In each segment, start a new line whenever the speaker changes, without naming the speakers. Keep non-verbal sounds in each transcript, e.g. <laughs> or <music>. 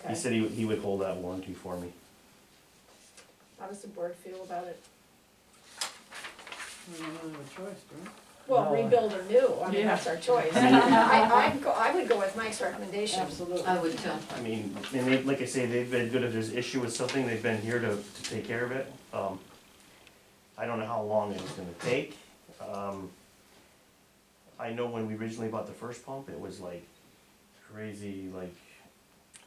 He
okay.
said he, would- he would hold that warranty for me.
How does the board feel about it?
We don't really have a choice, do we?
Well,
No, I-
rebuild or new, I mean, that's our choice. <laughs> I, I'd go, I would go with Mike's recommendation.
Absolutely.
I would too.
I mean, and they, like I say, they've been good if there's issue with something, they've been here to, to take care of it. Um, I don't know how long it was gonna take. Um, I know when we originally bought the first pump, it was like crazy, like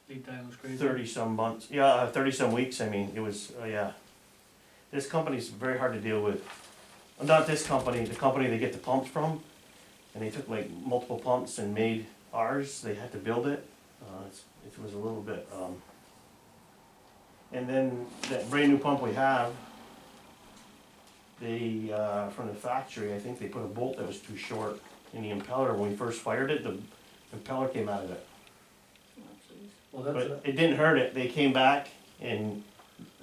Lead time was crazy.
thirty some months, yeah, thirty some weeks, I mean, it was, uh, yeah. This company's very hard to deal with, Uh, not this company, the company they get the pumps from, and they took like multiple pumps and made ours, they had to build it, uh, it's, it was a little bit, um. And then that brand new pump we have, they, uh, from the factory, I think they put a bolt that was too short in the impeller, when we first fired it, the impeller came out of it.
Well, that's,
But
a-
it didn't hurt it, they came back and,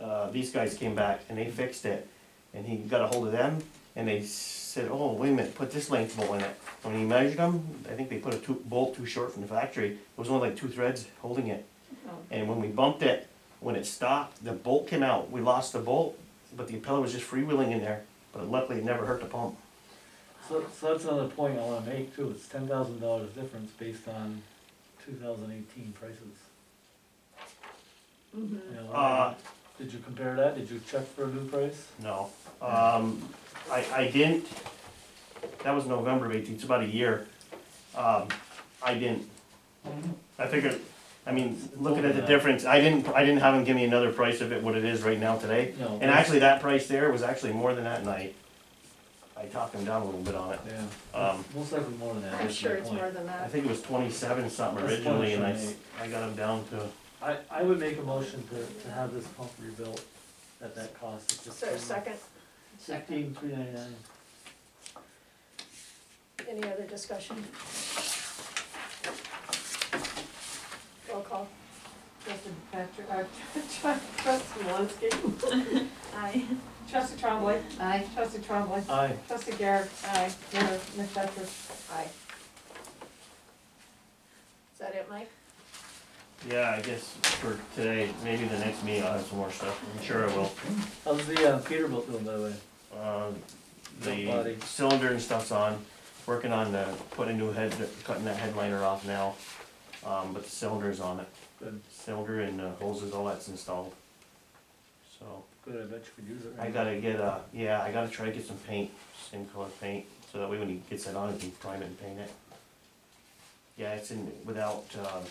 uh, these guys came back and they fixed it. And he got a hold of them and they said, oh, wait a minute, put this length bolt in it. When he measured them, I think they put a two, bolt too short from the factory, it was only like two threads holding it.
Oh.
And when we bumped it, when it stopped, the bolt came out, we lost the bolt, but the impeller was just freewheeling in there. But luckily, it never hurt the pump.
So, so that's another point I wanna make too, it's ten thousand dollars difference based on two thousand eighteen prices.
Oh,
You know,
Uh,
Did you compare that, did you check for a new price?
No, um, I, I didn't, that was November of eighteen, it's about a year, um, I didn't. I figured, I mean, looking at the difference, I didn't, I didn't have him give me another price of it, what it is right now today.
No.
And actually, that price there was actually more than that night. I talked him down a little bit on it,
Yeah,
um,
most likely more than that.
I'm
is
sure
my
it's
point.
more than
I
that.
think it was twenty-seven something
That's
originally, and I, s-
28.
I got him down to,
I, I would make a motion to, to have this pump rebuilt at that cost. It's just
So second,
Fifteen, three ninety-nine.
any other discussion? Roll call.
Trustee Patrick, uh, <laughs> trustee Malinsky,
Aye.
trustee Trombley,
I,
trustee Trombley,
Aye,
trustee Garrett, aye, Mayor McFetrich.
Aye. Is that it, Mike?
yeah, I guess for today, maybe the next meeting I'll have some more stuff, I'm sure I will.
how's the uh, Peterbilt doing by the way?
Uh, the
Nobody.
cylinder and stuff's on, working on the, putting a new head, cutting that headliner off now. Um, but the cylinder's on it,
Good,
cylinder and uh, hoses, all that's installed. So,
good, I bet you could use it.
I
right?
gotta get a, yeah, I gotta try to get some paint, same color paint, so that way when he gets it on, he can prime it and paint it. Yeah, it's in, without, um,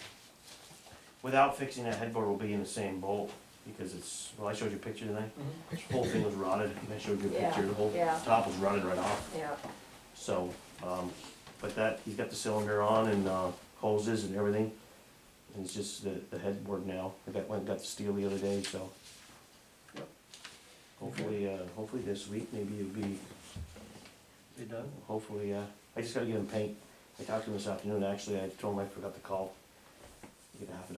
without fixing that headboard will be in the same bolt, because it's, well, I showed you a picture tonight.
Mhm.
This whole thing was rotted, <laughs> and I showed you a picture, the whole
Yeah, yeah.
top was rotted right off,
Yeah.
so, um, but that, he's got the cylinder on and, uh, hoses and everything. And it's just the, the headboard now, I got, went, and got the steel the other day, so.
Yep.
Hopefully, uh, hopefully this week, maybe it'll be,
They done?
hopefully, uh, I just gotta get him paint. I talked to him this afternoon, actually, I told him I forgot to call. Get a half an